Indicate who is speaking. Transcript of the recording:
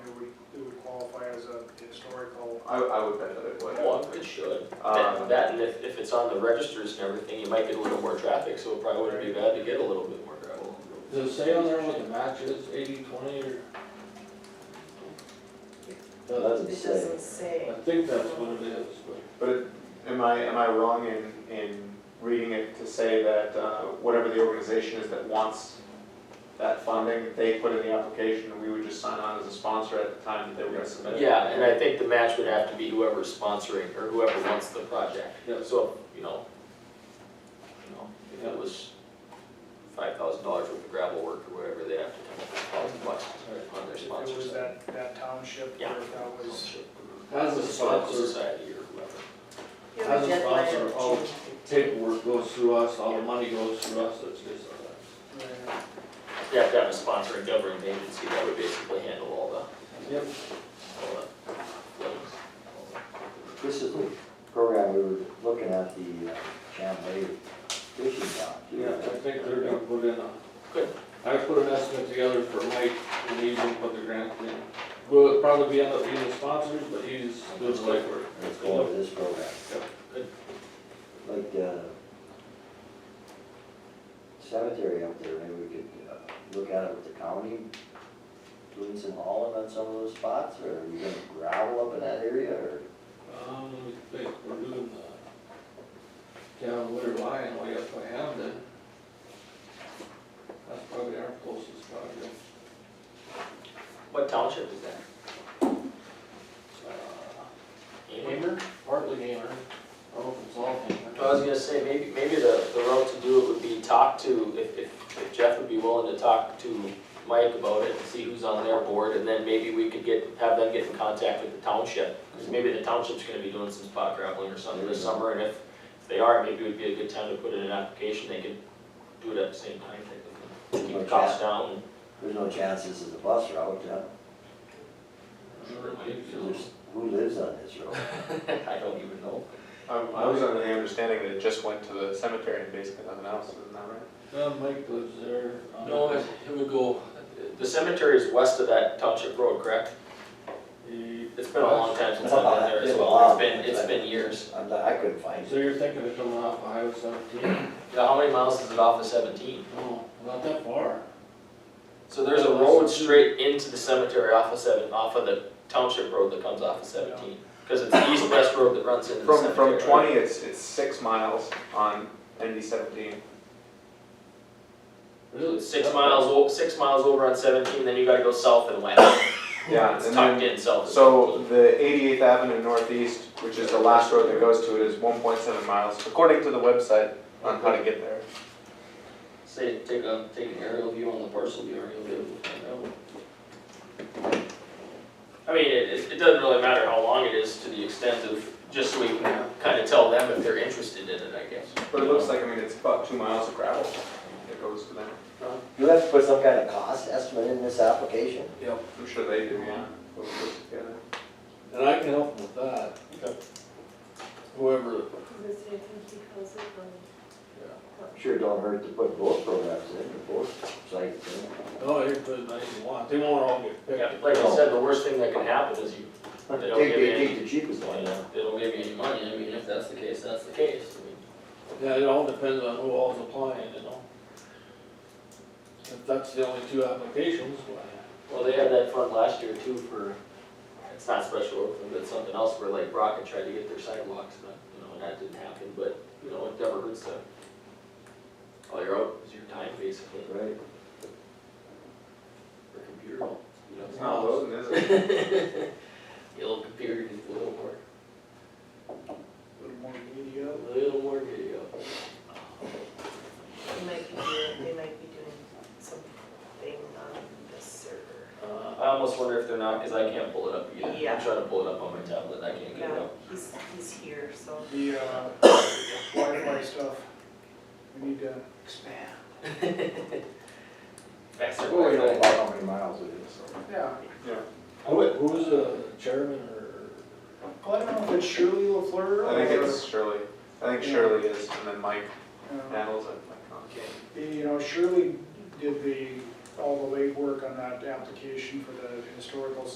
Speaker 1: I, I would bet that it would.
Speaker 2: Well, it should.
Speaker 1: Um,
Speaker 2: That, that, and if, if it's on the registers and everything, you might get a little more traffic, so it probably wouldn't be bad to get a little bit more gravel.
Speaker 3: Does it say on there what the match is, eighty, twenty, or?
Speaker 4: No, that doesn't
Speaker 5: It
Speaker 4: say.
Speaker 5: doesn't say.
Speaker 3: I think that's what it is, but
Speaker 1: But it- am I, am I wrong in, in reading it to say that uh, whatever the organization is that wants that funding, they put in the application, and we would just sign on as a sponsor at the time that they were gonna submit it?
Speaker 2: Yeah, and I think the match would have to be whoever's sponsoring or whoever wants the project.
Speaker 3: Yeah.
Speaker 2: So, you know, you know, if it was five thousand dollars worth of gravel work or whatever, they'd have to come up with a thousand bucks on their
Speaker 6: If
Speaker 2: sponsor
Speaker 6: It was
Speaker 2: side.
Speaker 6: that, that township where
Speaker 2: Yeah.
Speaker 6: that was,
Speaker 3: as a
Speaker 2: Historical
Speaker 3: sponsor,
Speaker 2: society or whoever.
Speaker 5: You have
Speaker 3: As a
Speaker 5: deadline
Speaker 3: sponsor,
Speaker 5: of
Speaker 3: I'll
Speaker 5: June
Speaker 3: paperwork goes through us, all the money goes through us, it's just, uh,
Speaker 6: where-
Speaker 2: You have to have a sponsoring governing agency that would basically handle all the,
Speaker 3: yep,
Speaker 2: all the flows. all the-
Speaker 4: This is the program we were looking at, the uh, Chamblee fishing dock.
Speaker 3: yeah, I think they're gonna put in a.
Speaker 2: Good.
Speaker 3: I put an estimate together for Mike, and he's gonna put the grant in. Will it probably be end up being the sponsors, but he's doing the legwork.
Speaker 4: It's going to this program.
Speaker 3: Yep.
Speaker 2: Good.
Speaker 4: Like uh, the cemetery up there, maybe we could uh, look at it with the county, doing some hauling on some of those spots, or are you gonna gravel up in that area, or?
Speaker 3: Um, let me think, we're doing the town Winter Lion way up by Hamden. That's probably our closest project.
Speaker 2: What township is that?
Speaker 3: Uh,
Speaker 2: Hammer?
Speaker 3: Partly Gamer, I hope it's all
Speaker 2: I was
Speaker 3: Gamer.
Speaker 2: gonna say, maybe, maybe the, the route to do it would be talk to, if, if if Jeff would be willing to talk to Mike about it and see who's on their board, and then maybe we could get, have them get in contact with the township. Cause maybe the township's gonna be doing some spot graveling or something this summer, and if, if they are, maybe it would be a good time to put in an application, they could do it at the same time, they could keep the costs down.
Speaker 4: There's no chance this is a bus route, huh?
Speaker 3: Sure, maybe
Speaker 4: There's- Who lives on this road?
Speaker 2: I don't even know.
Speaker 1: I, Um, I was under the understanding that it just went to the cemetery and basically nothing else, isn't that right?
Speaker 3: so. Uh, Mike lives there. um,
Speaker 2: No, it it would go, the cemetery is west of that township road, correct?
Speaker 3: he-
Speaker 2: It's been a long time since I've been there as well, it's been, it's been years.
Speaker 4: I'm not- I couldn't find
Speaker 3: So
Speaker 4: it.
Speaker 3: you're thinking of coming off Highway seventeen?
Speaker 2: Yeah, how many miles is it off of seventeen?
Speaker 3: No, not that far.
Speaker 2: So there's a road straight into the cemetery off of seven, off of the township road that comes off of seventeen. Cause it's the east-west road that runs into the
Speaker 1: From,
Speaker 2: cemetery.
Speaker 1: from
Speaker 2: right?
Speaker 1: twenty, it's, it's six miles on ND seventeen.
Speaker 3: Really?
Speaker 2: Six
Speaker 3: That
Speaker 2: miles,
Speaker 3: far?
Speaker 2: o- six miles over on seventeen, then you gotta go south and west.
Speaker 1: Yeah,
Speaker 2: It's
Speaker 1: and
Speaker 2: tucked
Speaker 1: then,
Speaker 2: in south. of
Speaker 1: so the eighty-eighth Avenue Northeast, which is the last road that goes to it, is one point seven miles, according to the website on how to get there.
Speaker 2: 17. Say, take a, take an aerial view on the parcel, you already be able to find out. I mean, it, it- it doesn't really matter how long it is to the extent of, just so we can kinda tell them if they're interested in it, I guess.
Speaker 1: But it looks like, I mean, it's about two miles of gravel that goes to them.
Speaker 4: You have to put some kind of cost estimate in this application?
Speaker 1: Yep. I'm sure they do, yeah. Put it together.
Speaker 3: And I can help him with that.
Speaker 2: Okay.
Speaker 3: Whoever,
Speaker 5: the city of Tempe calls it, um,
Speaker 4: Sure don't hurt to put both programs in, both sites in.
Speaker 3: oh, here, put it nice and wide, they won't all get picked.
Speaker 2: Yeah, like I said, the worst thing that can happen is you, They don't
Speaker 4: Take
Speaker 2: give
Speaker 4: the,
Speaker 2: in.
Speaker 4: take the cheapest one.
Speaker 2: you know, they don't give you any money, I mean, if that's the case, that's the case, I mean.
Speaker 3: Yeah, it all depends on who all's applying, you know? If that's the only two applications, why?
Speaker 2: Well, they had that fund last year too for, it's not special Oakland, but something else where like Rocket tried to get their sidewalks, but, you know, and that didn't happen, but, you know, it never hurts to. All you're out is your time basically,
Speaker 4: Right.
Speaker 2: or computer, you know.
Speaker 1: It's
Speaker 2: it's
Speaker 1: not loading, is it?
Speaker 2: not- Your little computer needs a little more,
Speaker 6: a little more media.
Speaker 2: a little more video.
Speaker 5: they might be doing, they might be doing something on the server.
Speaker 2: Uh, I almost wonder if they're not, cause I can't pull it up again,
Speaker 5: Yeah.
Speaker 2: I'm trying to pull it up on my tablet, I can't get it
Speaker 5: Yeah,
Speaker 2: up.
Speaker 5: he's, he's here, so.
Speaker 6: The uh, Wi-Fi stuff, we need to expand.
Speaker 2: Fax their
Speaker 1: Well, we know
Speaker 2: Wi-Fi.
Speaker 1: about how many miles it is, so.
Speaker 6: Yeah,
Speaker 3: Who, who's the chairman or?
Speaker 6: well, I don't know if it's Shirley LaFleur or.
Speaker 1: I think it's Shirley. I think Shirley is, and then Mike
Speaker 6: uh,
Speaker 1: handles it, Mike Conley.
Speaker 6: You know, Shirley did the, all the legwork on that application for the historical